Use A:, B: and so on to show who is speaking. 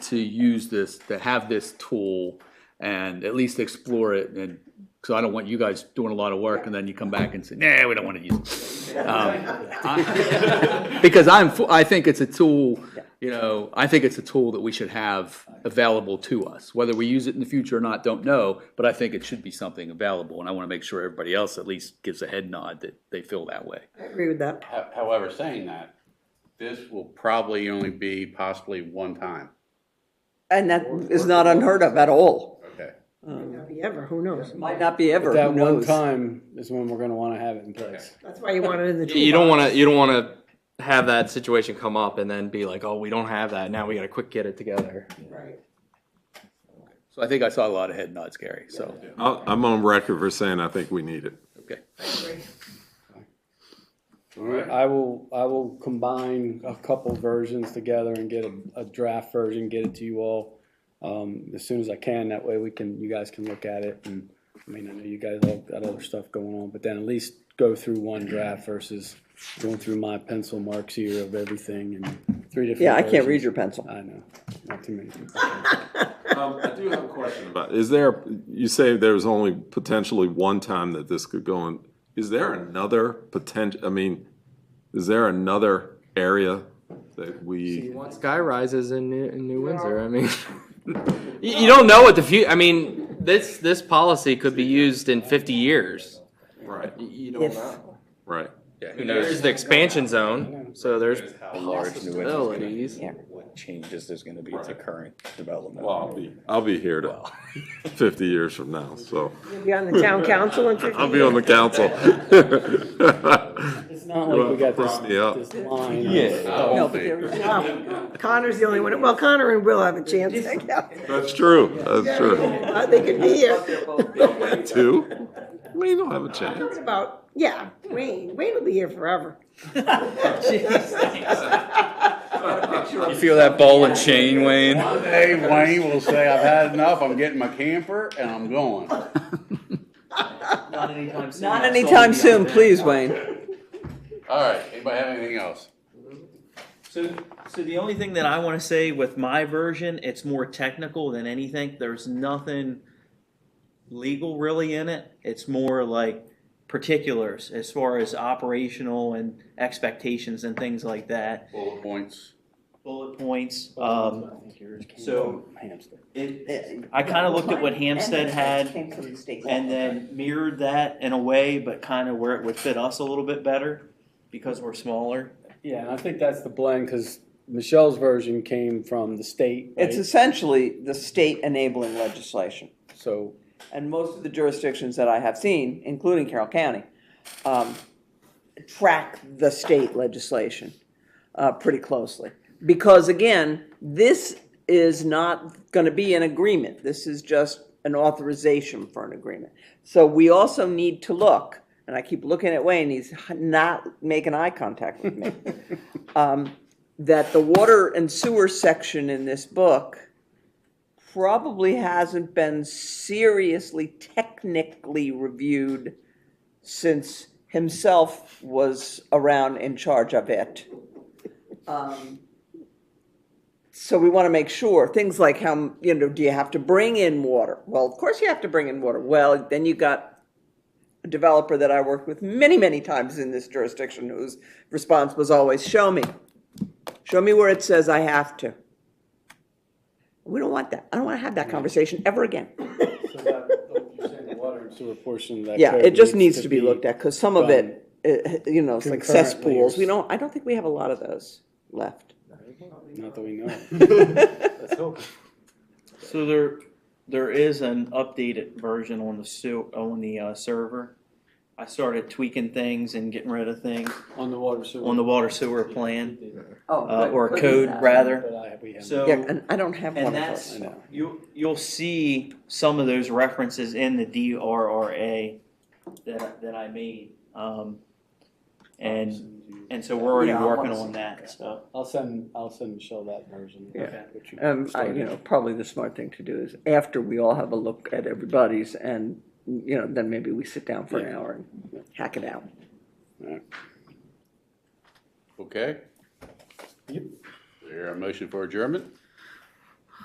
A: to use this, to have this tool and at least explore it and, so I don't want you guys doing a lot of work and then you come back and say, nah, we don't want to use it. Um, I- Because I'm, fu- I think it's a tool, you know, I think it's a tool that we should have available to us. Whether we use it in the future or not, don't know, but I think it should be something available. And I want to make sure everybody else at least gives a head nod that they feel that way.
B: I agree with that.
C: Ho- However, saying that, this will probably only be possibly one time.
B: And that is not unheard of at all.
C: Okay.
D: Not be ever, who knows?
B: Might not be ever, who
E: That one
B: knows?
E: time is when we're gonna wanna have it in place.
D: That's why you want it in the toolbox.
F: You don't want to. You don't want to have that situation come up and then be like, "Oh, we don't have that. Now we got to quick get it together."
D: Right.
A: So I think I saw a lot of head nods, Gary, so,
G: I'll- I'm on record for saying I think we need it.
A: okay.
E: I will, I will combine a couple versions together and get a, a draft version, get it to you all, um, as soon as I can, that way we can, you guys can look at it, and, I mean, I know you guys all got other stuff going on, but then at least go through one draft versus going through my pencil marks here of everything and three different.
B: Yeah, I can't read
E: versions.
B: your pencil.
E: I know, not too many people.
G: Um, I do have a question about, is there, you say there's only potentially one time that this could go on. Is there another potential, I mean, is there another area that we,
F: You want sky rises in New, in New Windsor? I mean, you, you don't know what the future. I mean, this this policy could be used in 50 years.
G: right,
F: You
B: If,
G: right?
F: There's the expansion zone, so there's
H: How large New England's
F: possibilities.
H: gonna be, what changes there's gonna be to current development.
G: Well, I'll be, I'll be here to fifty years from now, so
D: You'll Be on the town council in fifty
G: I'll be on the council.
E: It's not like we got this,
G: me up.
E: this line. of-
B: no, but there-
D: years. Oh, Connor's the only one, well, Connor and Will have a chance.
G: That's true, that's true.
D: Uh, They could be here.
G: Two? We don't have a chance.
D: It's about, yeah, Wayne, Wayne will be here forever.
F: You feel that ball and chain, Wayne?
C: One day Wayne will say, I've had enough, I'm getting my camper and I'm going.
B: Not anytime soon, please, Wayne.
C: All right, anybody have anything else?
I: So, so the only thing that I want to say with my version, it's more technical than anything. There's nothing legal really in it. It's more like particulars as far as operational and expectations and things like that.
C: Bullet points.
I: Bullet points. Um, so
E: Hamster.
I: it, I kind of looked at what Hampstead had
B: Came from the state.
I: and then mirrored that in a way, but kind of where it would fit us a little bit better because we're smaller.
E: Yeah, and I think that's the blend, because Michelle's version came from the state,
B: It's
E: right?
B: essentially the state enabling legislation.
E: So,
B: and most of the jurisdictions that I have seen, including Carroll County, um, track the state legislation uh, pretty closely. Because again, this is not going to be an agreement. This is just an authorization for an agreement. So we also need to look, and I keep looking at Wayne, he's not making eye contact with me, um, that the water and sewer section in this book probably hasn't been seriously technically reviewed since himself was around in charge of it. Um, So we want to make sure, things like how, you know, do you have to bring in water? Well, of course you have to bring in water. Well, then you got a developer that I worked with many, many times in this jurisdiction whose response was always, show me. Show me where it says I have to. We don't want that. I don't want to have that conversation ever again.
E: so that, you're saying the water and sewer portion of that
B: Yeah,
E: code
B: it just needs to be looked at, because some of
E: done
B: it, it- you know, it's like
E: concurrently or
B: cesspools. We
E: s-
B: don't, I don't think we have a lot of those left. Oh,
E: Not that we know.
I: So there, there is an updated version on the su- on the uh, server. I started tweaking things and getting rid of things
E: On the water sewer.
I: on the water sewer plan uh,
B: Oh,
I: or code rather.
E: But I, we haven't.
I: So
B: Yeah, and I don't have one
I: and
B: of those.
I: that's
E: I know.
I: you you'll see some of those references in the DRRA that that I made. Um, and and so we're already
B: Yeah, I
I: working
B: wanna see
I: on that stuff.
E: I'll send, I'll send Michelle that version.
B: Yeah.
E: Okay, which you
B: Um, I,
E: started.
B: you know, probably the smart thing to do is after we all have a look at everybody's and, you know, then maybe we sit down for an hour and hack it out.
C: Okay? Yep. There a motion for adjournment?